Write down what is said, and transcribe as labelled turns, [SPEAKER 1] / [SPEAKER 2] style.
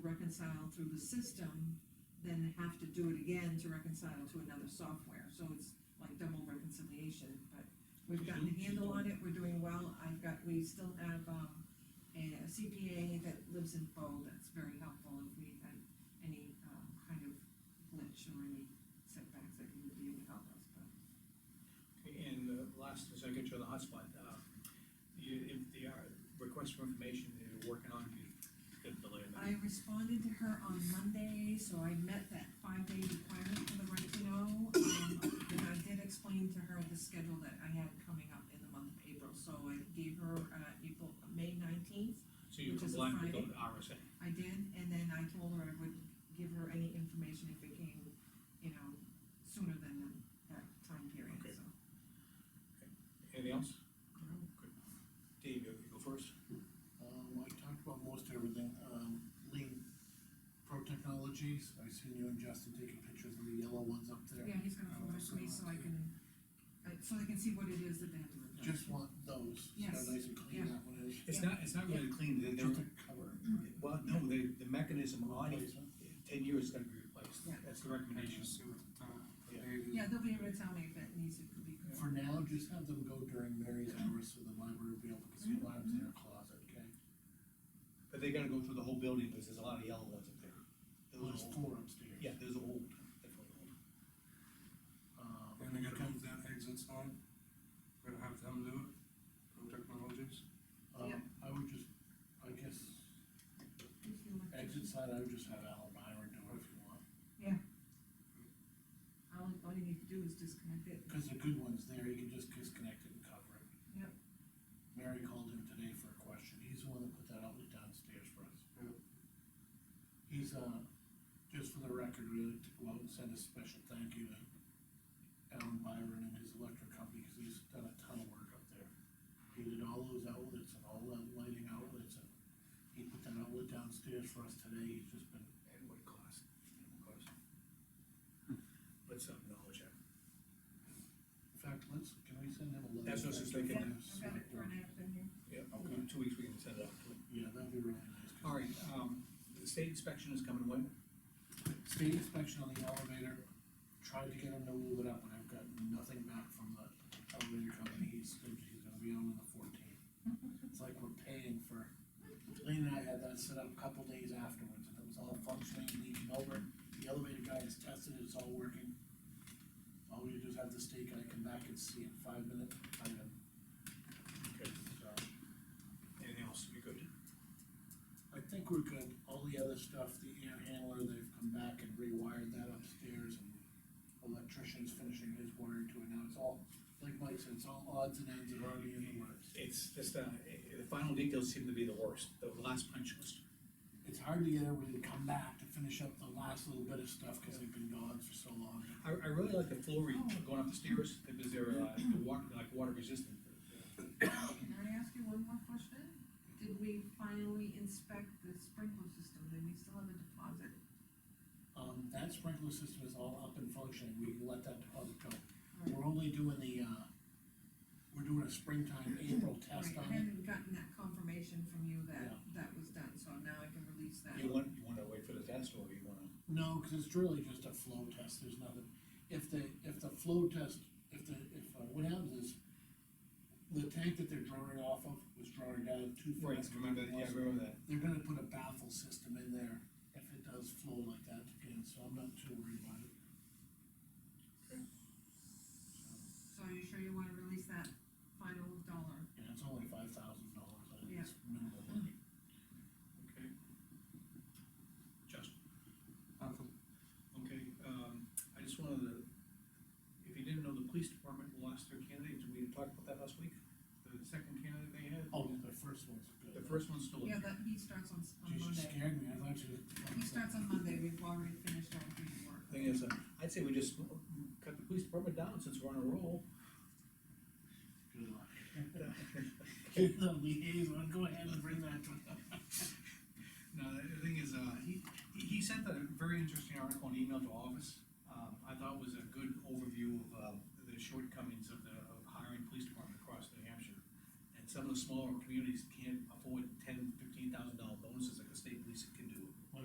[SPEAKER 1] reconcile through the system, then have to do it again to reconcile to another software, so it's like double reconciliation, but we've gotten a handle on it, we're doing well, I've got, we still have, um, a CPA that lives in Bo, that's very helpful if we had any, um, kind of glitch or any setbacks that he would be able to help us, but.
[SPEAKER 2] And the last, as I get you on the hotspot, uh, you, if the, uh, request for information that you're working on, you could delay that.
[SPEAKER 1] I responded to her on Monday, so I met that five-day requirement for the right to know. um, And I did explain to her the schedule that I had coming up in the month of April, so I gave her, uh, April, May nineteenth.
[SPEAKER 2] So you
[SPEAKER 1] which is a
[SPEAKER 2] comply with the RSA.
[SPEAKER 1] I did, and then I told her I would give her any information if it came, you know, sooner than that time period,
[SPEAKER 2] Okay.
[SPEAKER 1] so.
[SPEAKER 2] Anything else? Good. Dave, you you go first?
[SPEAKER 3] Um, I talked about most everything, um, Lean Pro Technologies, I seen you and Justin taking pictures of the yellow ones up there.
[SPEAKER 1] Yeah, he's gonna forward it to me so I can, uh, so I can see what it is that they have to replace.
[SPEAKER 3] Just want those, so
[SPEAKER 1] Yes,
[SPEAKER 3] nice and clean,
[SPEAKER 1] yeah.
[SPEAKER 3] that one is.
[SPEAKER 2] It's not, it's not really clean, they,
[SPEAKER 3] Just
[SPEAKER 2] they're,
[SPEAKER 3] a cover.
[SPEAKER 2] well, no, they, the mechanism on it,
[SPEAKER 3] Replacement.
[SPEAKER 2] ten years is gonna be replaced,
[SPEAKER 1] Yeah.
[SPEAKER 2] that's the recommendation.
[SPEAKER 4] uh,
[SPEAKER 1] Yeah, they'll be able to tell me if it needs to be.
[SPEAKER 3] For now, just have them go during Mary's hours, so the library will be able to see
[SPEAKER 1] Mm-hmm.
[SPEAKER 3] what happens in her closet, okay?
[SPEAKER 2] But they gotta go through the whole building, because there's a lot of yellow ones up there.
[SPEAKER 3] Well,
[SPEAKER 2] Those
[SPEAKER 3] There's
[SPEAKER 2] are old,
[SPEAKER 3] four upstairs.
[SPEAKER 2] yeah, those are old, definitely old.
[SPEAKER 3] Um,
[SPEAKER 4] And they gotta come to that exit sign, we're gonna have them do it, Pro Technologies.
[SPEAKER 3] Um,
[SPEAKER 1] Yeah.
[SPEAKER 3] I would just, I guess, exit side, I would just have Alan Byron do it if you want,
[SPEAKER 1] All, all you need to do is disconnect it.
[SPEAKER 3] because the good one's there, you can just disconnect it and cover it.
[SPEAKER 1] Yep.
[SPEAKER 3] Mary called him today for a question, he's the one that put that outlet downstairs for us.
[SPEAKER 4] Yep.
[SPEAKER 3] He's, uh, just for the record, we'd like to go out and send a special thank you to Alan Byron and his electric company, because he's done a ton of work up there. He did all those outlets and all the lighting outlets, and he put that outlet downstairs for us today, he's just been
[SPEAKER 2] And what cost, and what cost. Hmm. Let's acknowledge that.
[SPEAKER 3] In fact, let's, can we send him a letter?
[SPEAKER 2] That's what I was just
[SPEAKER 3] Thank you.
[SPEAKER 2] thinking.
[SPEAKER 1] I've got it for an app in here.
[SPEAKER 2] Yeah, in two weeks we can send it out to them.
[SPEAKER 3] Yeah, that'd be really nice. 'cause
[SPEAKER 2] All right, um, the state inspection is coming when?
[SPEAKER 3] State inspection on the elevator, tried to get him to move it up, and I've gotten nothing back from the elevator company, he's, he's gonna be on on the fourteenth. It's like we're paying for, Lean and I had that set up a couple days afterwards, and it was all functioning, leaking over, the elevator guy has tested it, it's all working. All we do is have the state guy come back and see in five minutes, item,
[SPEAKER 2] Okay.
[SPEAKER 3] so.
[SPEAKER 2] Anything else, we good?
[SPEAKER 3] I think we're good, all the other stuff, the air handler, they've come back and rewired that upstairs and electrician's finishing his wire to it now, it's all, like Mike said, it's all odds and ends are already in the works.
[SPEAKER 2] It's just, uh, i- the final details seem to be the worst, the last punch list.
[SPEAKER 3] It's hard to get everybody to come back to finish up the last little bit of stuff, cause they've been gone for so long.
[SPEAKER 2] I, I really like the flooring going up the stairs, because they're, uh, water, like water resistant.
[SPEAKER 1] Can I ask you one more question? Did we finally inspect the sprinkler system, then we still have a deposit?
[SPEAKER 3] Um, that sprinkler system is all up and functioning, we can let that deposit go.
[SPEAKER 1] Right.
[SPEAKER 3] We're only doing the, uh, we're doing a springtime April test
[SPEAKER 1] Right,
[SPEAKER 3] on
[SPEAKER 1] I
[SPEAKER 3] it.
[SPEAKER 1] hadn't gotten that confirmation from you that,
[SPEAKER 3] Yeah.
[SPEAKER 1] that was done, so now I can release that.
[SPEAKER 2] You want, you wanna wait for the test, or you wanna?
[SPEAKER 3] No, cause it's really just a flow test, there's nothing, if the, if the flow test, if the, if, uh, what happens is. The tank that they're drawing off of was drawing down too fast.
[SPEAKER 2] remember that.
[SPEAKER 3] They're gonna put a baffle system in there if it does flow like that again, so I'm not too worried about it. So,
[SPEAKER 1] So are you sure you wanna release that final dollar?
[SPEAKER 3] Yeah, it's only five thousand dollars, I think
[SPEAKER 1] Yeah.
[SPEAKER 3] it's minimal money.
[SPEAKER 2] Okay. Justin,
[SPEAKER 4] Nothing.
[SPEAKER 2] okay, um, I just wanted to, if you didn't know, the police department lost their candidate, we talked about that last week? The second candidate they had?
[SPEAKER 3] Oh, the first one's good.
[SPEAKER 2] The first one's still in.
[SPEAKER 1] Yeah, that, he starts on, s- on
[SPEAKER 3] Geez, you
[SPEAKER 1] Monday.
[SPEAKER 3] scared me, I thought you.
[SPEAKER 1] He starts on Monday, we've already finished our pre work.
[SPEAKER 2] Thing is, uh, I'd say we just cut the police department down since we're on a roll.
[SPEAKER 3] Good luck. Get the liaison, go ahead and bring that to
[SPEAKER 2] No, the thing is, uh, he, he sent a very interesting article and email to office. Um, I thought was a good overview of, uh, the shortcomings of the, of hiring police department across New Hampshire. And some of the smaller communities